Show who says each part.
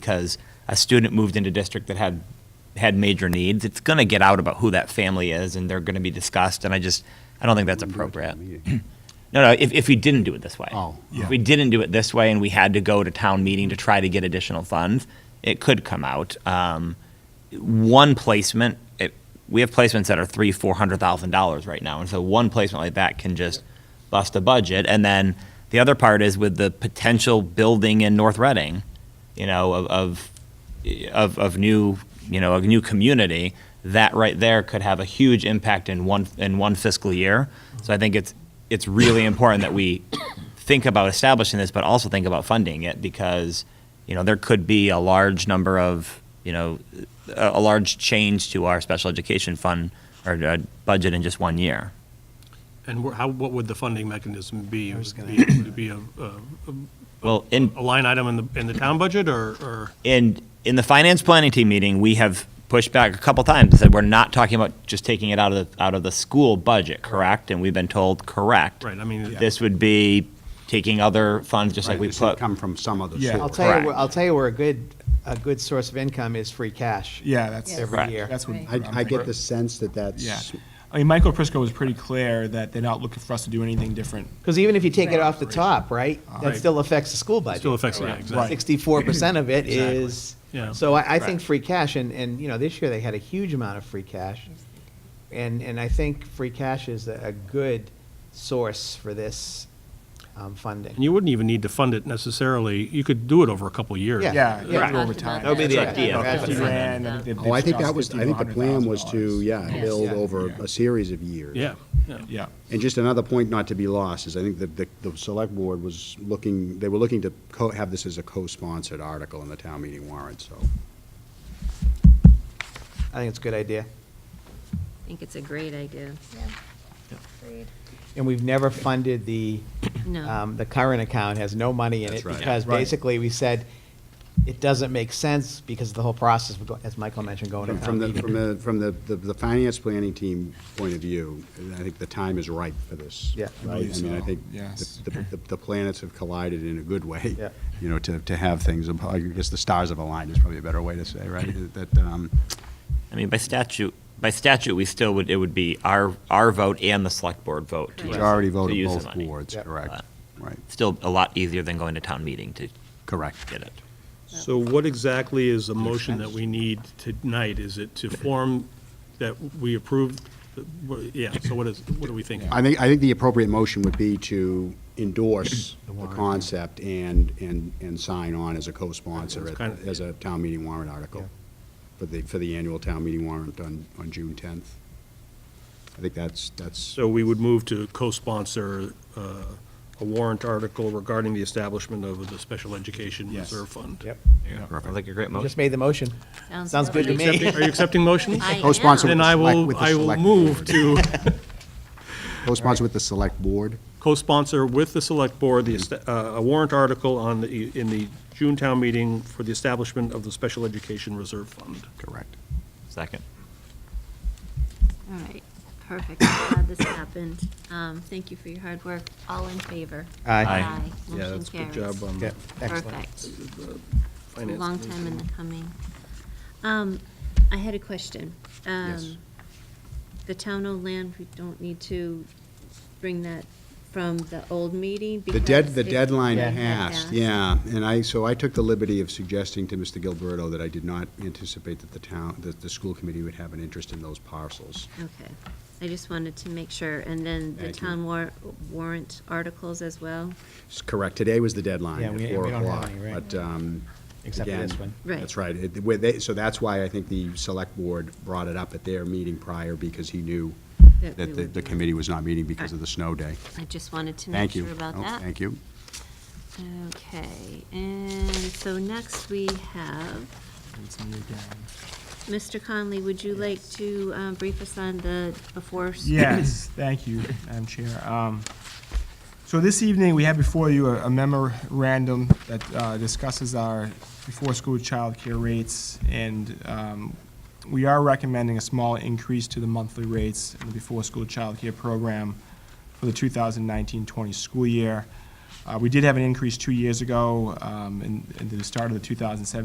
Speaker 1: because a student moved into district that had had major needs, it's going to get out about who that family is, and they're going to be discussed. And I just, I don't think that's appropriate. No, no. If, if we didn't do it this way,
Speaker 2: Oh,
Speaker 1: if we didn't do it this way, and we had to go to town meeting to try to get additional funds, it could come out. Um, one placement, it, we have placements that are three, four hundred thousand dollars right now, and so one placement like that can just bust a budget. And then the other part is with the potential building in North Reading, you know, of of of, of new, you know, a new community. That right there could have a huge impact in one in one fiscal year. So I think it's it's really important that we think about establishing this, but also think about funding it because you know there could be a large number of you know a, a large change to our special education fund or uh, budget in just one year.
Speaker 3: And wh- how, what would the funding mechanism be? Would it be- would it be a, a-
Speaker 1: Well, in
Speaker 3: a line item in the, in the town budget, or, or
Speaker 1: in in the finance planning team meeting, we have pushed back a couple times and said we're not talking about just taking it out of the out of the school budget, correct? And we've been told correct.
Speaker 3: Right, I mean-
Speaker 1: this would be taking other funds, just like we
Speaker 2: This should
Speaker 1: put.
Speaker 2: come from some other
Speaker 4: Yeah.
Speaker 2: source.
Speaker 5: I'll tell you, where-
Speaker 1: Correct.
Speaker 5: I'll tell you where a good, a good source of income is free cash.
Speaker 4: Yeah, that's,
Speaker 5: Every
Speaker 1: Right.
Speaker 5: year.
Speaker 4: that's what.
Speaker 2: I,
Speaker 4: I'm
Speaker 2: I get
Speaker 4: thinking.
Speaker 2: the sense that
Speaker 4: Yeah.
Speaker 2: that's,
Speaker 4: I mean, Michael Prisco was pretty clear that they're not looking for us to do anything different.
Speaker 5: Because even if you take it off the top, right,
Speaker 4: Uh,
Speaker 5: that still affects the school budget.
Speaker 3: still affects, yeah, exactly.
Speaker 5: Sixty-four percent of it is,
Speaker 3: Yeah.
Speaker 5: so I, I think free cash, and, and, you know, this year they had a huge amount of free cash. And, and I think free cash is a, a good source for this, um, funding.
Speaker 3: And you wouldn't even need to fund it necessarily, you could do it over a couple of years.
Speaker 5: Yeah.
Speaker 4: Yeah,
Speaker 5: Yeah.
Speaker 4: yeah, over time.
Speaker 5: That would be the idea.
Speaker 4: About Fifty
Speaker 5: That's what I
Speaker 4: grand. I think they've-
Speaker 2: oh, I
Speaker 4: they've
Speaker 2: think that
Speaker 4: discussed
Speaker 2: was, I
Speaker 4: 50 to
Speaker 2: think the plan was to,
Speaker 4: $100,000.
Speaker 2: yeah, build
Speaker 4: Yeah.
Speaker 2: over
Speaker 4: Yeah.
Speaker 2: a series of years.
Speaker 3: Yeah, yeah.
Speaker 4: Yeah,
Speaker 2: And just another point not to be lost is I think that the, the select board was looking, they were looking to co, have this as a co-sponsored article in the town meeting warrant, so.
Speaker 5: I think it's a good idea.
Speaker 6: I think it's a great idea.
Speaker 5: And we've never funded the,
Speaker 6: No.
Speaker 5: um, the current account has no money in it
Speaker 2: That's right.
Speaker 5: because basically we said it doesn't make sense because of the whole process, would go- as Michael mentioned, going to
Speaker 2: From-
Speaker 5: town
Speaker 2: From the,
Speaker 5: meeting.
Speaker 2: from the, from the, the- the finance planning team point of view, I think the time is ripe for this.
Speaker 5: Yeah.
Speaker 2: Right? I mean, I
Speaker 4: so,
Speaker 2: think
Speaker 4: yes.
Speaker 2: the, the- the planets have collided in a good way.
Speaker 5: Yeah.
Speaker 2: You know, to, to have things, I guess the stars have aligned is probably a better way to say, right? That, um,
Speaker 1: I mean, by statute, by statute, we still would, it would be our, our vote and the select board vote. to-
Speaker 2: majority
Speaker 1: to
Speaker 2: vote of
Speaker 1: use the
Speaker 2: both
Speaker 1: money. Uh,
Speaker 2: boards,
Speaker 5: Yep.
Speaker 2: correct? Right,
Speaker 1: Still a lot easier than going to town meeting to
Speaker 2: correct.
Speaker 1: get it.
Speaker 3: So what exactly is the motion that we need tonight? Is it to form that we approve, the- what- yeah, so what is, what are we thinking?
Speaker 2: I think, I think the appropriate motion would be to endorse the concept and, and, and sign on as a co-sponsor
Speaker 3: It's
Speaker 2: at-
Speaker 3: kind of-
Speaker 2: as a town meeting warrant article for the, for the annual town meeting warrant on, on June 10th. I think that's, that's,
Speaker 3: So we would move to co-sponsor uh, a warrant article regarding the establishment of the Special Education
Speaker 4: Yes.
Speaker 3: Reserve Fund.
Speaker 5: Yep,
Speaker 1: Sounds like a great motion.
Speaker 5: just made the motion.
Speaker 2: Mm-hmm.
Speaker 5: Sounds good to
Speaker 3: Are you
Speaker 5: me.
Speaker 3: accepting- are you accepting motion?
Speaker 6: I am.
Speaker 2: Co-sponsor with
Speaker 3: Then
Speaker 2: the
Speaker 3: I
Speaker 2: select,
Speaker 3: will,
Speaker 2: with the
Speaker 3: I will
Speaker 2: select
Speaker 3: move
Speaker 2: board.
Speaker 3: to
Speaker 2: co-sponsor with the select board.
Speaker 3: co-sponsor with the select board the, est- uh, a warrant article on the, in the June town meeting for the establishment of the Special Education Reserve Fund.
Speaker 2: Correct.
Speaker 1: Second.
Speaker 6: All right, perfect. I'm Glad this happened. Um, Thank you for your hard work. All in favor?
Speaker 5: Aye.
Speaker 1: Aye.
Speaker 3: Yeah,
Speaker 6: Motion
Speaker 3: that's a good
Speaker 6: carries.
Speaker 3: job um, on
Speaker 5: Yeah,
Speaker 3: the
Speaker 5: excellent.
Speaker 6: Perfect.
Speaker 3: finance.
Speaker 6: Long time in the coming. Um, I had a question. Um, The town owned land, we don't need to bring that from the old meeting?
Speaker 2: The dead,
Speaker 6: because
Speaker 2: the
Speaker 6: it-
Speaker 2: deadline
Speaker 5: Yeah.
Speaker 2: passed, yeah, and I, so I took the liberty of suggesting to Mr. Gilberto that I did not anticipate that the town, that the school committee would have an interest in those parcels.
Speaker 6: Okay, I just wanted to make sure. And then the
Speaker 2: Thank you.
Speaker 6: town war- warrant articles as well?
Speaker 2: It's Correct, today was the deadline,
Speaker 5: Yeah,
Speaker 2: at
Speaker 5: we- we
Speaker 2: four
Speaker 5: don't have
Speaker 2: o'clock,
Speaker 5: any, right.
Speaker 2: but, um,
Speaker 5: Except for
Speaker 2: again,
Speaker 5: this one.
Speaker 6: Right.
Speaker 2: That's right, It- where they- so that's why I think the select board brought it up at their meeting prior, because he knew
Speaker 6: That we
Speaker 2: that the,
Speaker 6: would
Speaker 2: the
Speaker 6: be-
Speaker 2: committee was not meeting because of the snow day.
Speaker 6: I just wanted to make
Speaker 2: Thank you.
Speaker 6: sure about
Speaker 2: Oh,
Speaker 6: that.
Speaker 2: Thank you.
Speaker 6: Okay, and so next we have,
Speaker 4: It's me again.
Speaker 6: Mr. Conley, would you like to um, brief us on the before?
Speaker 4: Yes, thank you, Madam Chair. Um, So this evening, we have before you a a memorandum that uh, discusses our before-school childcare rates, and um, we are recommending a small increase to the monthly rates in the before-school childcare program for the 2019-20 school year. Uh, We did have an increase two years ago, um, in in the start of the 2017